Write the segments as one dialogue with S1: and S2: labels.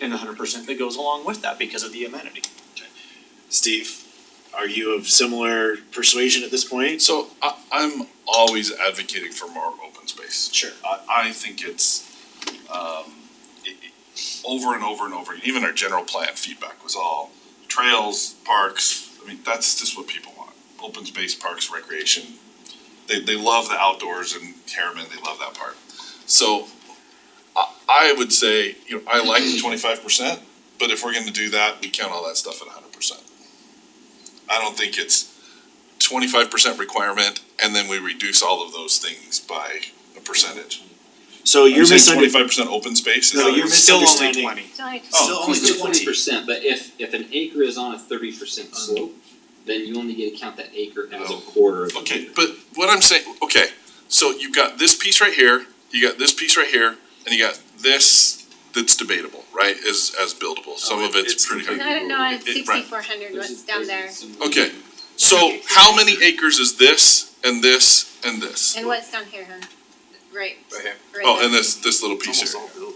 S1: and hundred percent that goes along with that because of the amenity.
S2: Steve, are you of similar persuasion at this point?
S3: So I, I'm always advocating for more open space.
S2: Sure.
S3: I, I think it's, um, it, it, over and over and over, even our general plan feedback was all trails, parks, I mean, that's just what people want. Open space, parks, recreation, they, they love the outdoors and Harriman, they love that part. So I, I would say, you know, I like the twenty-five percent, but if we're gonna do that, we count all that stuff at hundred percent. I don't think it's twenty-five percent requirement, and then we reduce all of those things by a percentage.
S2: So
S3: You're
S2: you're
S3: saying
S2: misunderstanding.
S3: twenty-five percent open space? is
S2: No,
S3: that what
S2: you're
S3: it is?
S1: Still only
S2: misunderstanding.
S1: 20.
S2: Still
S3: oh,
S2: only
S4: It's
S2: twenty.
S4: percent, but if, if an acre is on a thirty percent slope, then you only get to count that acre as a
S3: Oh.
S4: quarter of an
S3: Okay,
S4: acre.
S3: but what I'm saying, okay, so you've got this piece right here, you got this piece right here, and you got this that's debatable, right, is, as buildable, some of it's pretty.
S5: No, I don't know,
S3: It- it- right.
S5: sixty-four hundred, what's down there,
S3: Okay, so how many acres is this, and this, and this?
S5: and what's down here, huh? Right.
S6: Right here.
S5: right
S3: Oh,
S5: there.
S3: and this, this little piece here.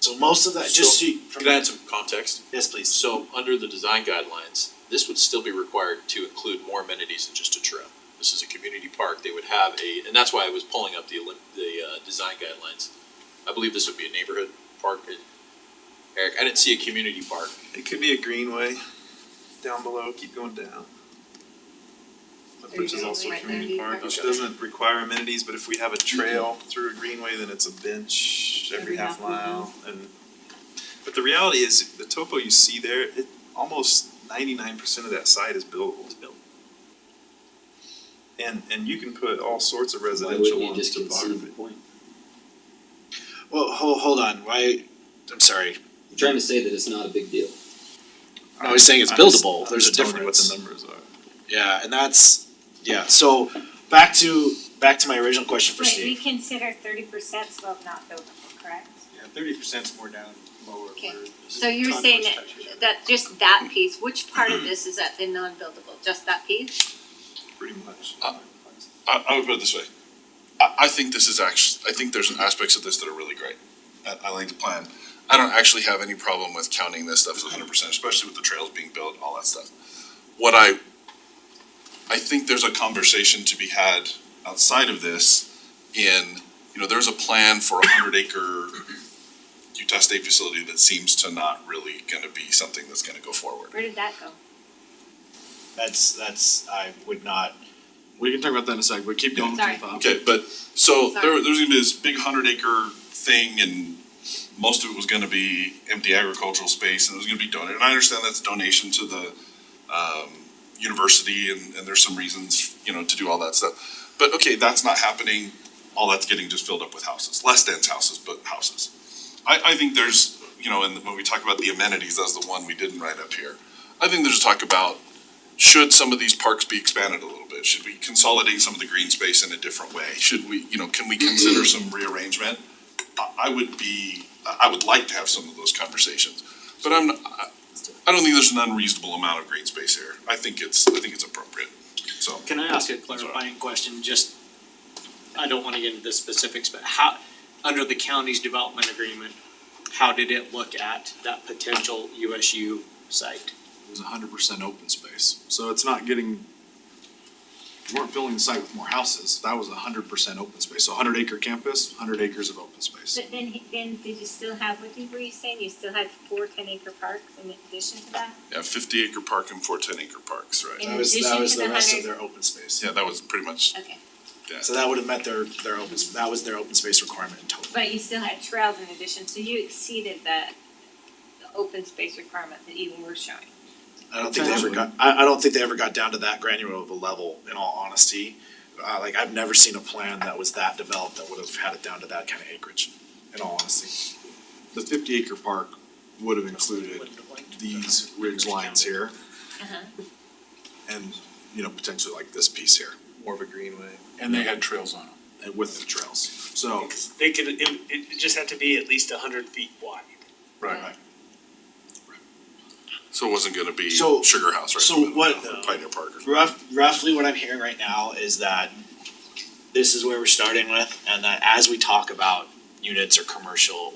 S2: So most of that, just so, you-
S6: Could I add some context?
S2: yes, please.
S6: So, under the design guidelines, this would still be required to include more amenities than just a trail. This is a community park, they would have a, and that's why I was pulling up the, elim- the, uh, design guidelines. I believe this would be a neighborhood park, Eric, I didn't see a community park.
S7: It could be a greenway down below, keep going down.
S5: There
S7: Which
S5: you
S7: is
S5: go,
S7: also a
S5: right there,
S7: community
S5: you
S7: park,
S5: park.
S7: which
S5: Okay.
S7: doesn't require amenities, but if we have a trail through a greenway, then it's a bench every
S5: Every
S7: half
S5: half mile.
S7: mile and. But the reality is, the topo you see there, it, almost ninety-nine percent of that site is buildable. And, and you can put all sorts of
S4: Why wouldn't
S7: residential
S4: you
S7: on
S4: just concede the
S7: topography.
S4: point?
S2: Well, ho- hold on, why, I'm sorry,
S4: You're trying to say that it's not a big deal.
S2: No, he's saying it's
S7: I'm just-
S2: buildable. There's a
S7: I'm
S2: difference.
S7: just telling you what the numbers are.
S2: yeah, and that's, yeah, so back to, back to my original question for
S8: Wait, we
S2: Steve.
S8: consider thirty percent slope not buildable, correct?
S1: Yeah, thirty percent's more down lower.
S5: Okay.
S1: where this
S5: So you're
S1: contour
S5: saying
S1: structure.
S5: that, that, just that piece, which part of this is at the non-buildable, just that piece?
S7: pretty much.
S3: Uh, I, I would put it this way. I, I think this is actually, I think there's aspects of this that are really great. I, I like the plan. I don't actually have any problem with counting this stuff as hundred percent, especially with the trails being built, and all that stuff. What I, I think there's a conversation to be had outside of this in, you know, there's a plan for a hundred acre Utah State facility that seems to not really gonna be something that's gonna go forward.
S5: Where did that go?
S2: That's, that's, I would not,
S6: We can talk about that in a sec, but keep
S5: going. Sorry.
S3: Okay, but, so there,
S5: Sorry.
S3: there's gonna be this big hundred acre thing and most of it was gonna be empty agricultural space and it was gonna be donated. And I understand that's donation to the, um, university and, and there's some reasons, you know, to do all that stuff. But okay, that's not happening. All that's getting just filled up with houses, less dense houses, but houses. I, I think there's, you know, and when we talk about the amenities, that's the one we didn't write up here. I think there's talk about should some of these parks be expanded a little bit? Should we consolidate some of the green space in a different way? Should we, you know, can we consider some rearrangement? I, I would be, I I would like to have some of those conversations, but I'm, not- I, I don't think there's an unreasonable amount of green space here. I think it's, I think it's appropriate, so.
S1: Can I ask a
S3: all right.
S1: clarifying question, just, I don't wanna get into the specifics, but how, under the county's development agreement, how did it look at that potential USU site?
S9: It was hundred percent open space, so it's not getting, we weren't filling the site with more houses, that was hundred percent open space, so hundred acre campus, hundred acres of open space.
S8: But then, then did you still have, what did- were you saying, you still had four ten acre parks in addition to that?
S3: Yeah, fifty acre park and four ten acre parks, right?
S8: In
S2: that was, that
S8: addition
S2: was
S8: to
S2: the
S8: the
S2: rest of
S8: 100
S2: their open space.
S3: Yeah, that was pretty much,
S5: Okay,
S3: yeah.
S2: So that would have met their, their open, s- that was their open space requirement in total.
S8: But you still had trails in addition, so you exceeded the, the open space requirement that even we're showing.
S2: I don't think they ever got, I, I don't think they ever got down to that granular of a level, in all honesty. Uh, like, I've never seen a plan that was that developed that would have had it down to that kind of acreage, in all honesty.
S9: The fifty acre park would have included these ridge lines here.
S2: Uh-huh.
S9: And, you know, potentially like this piece here,
S7: More of a greenway.
S9: and they had trails on them, and with the trails, so.
S10: They could, it, it just had to be at least a hundred feet wide.
S9: Right.
S3: So it wasn't gonna be
S2: So-
S3: Sugar House, right? in the
S2: so
S3: middle of
S2: what-
S3: that, Pioneer Park or
S2: Rough, roughly what I'm hearing right now is that this is where we're starting with, and that as we talk about units or commercial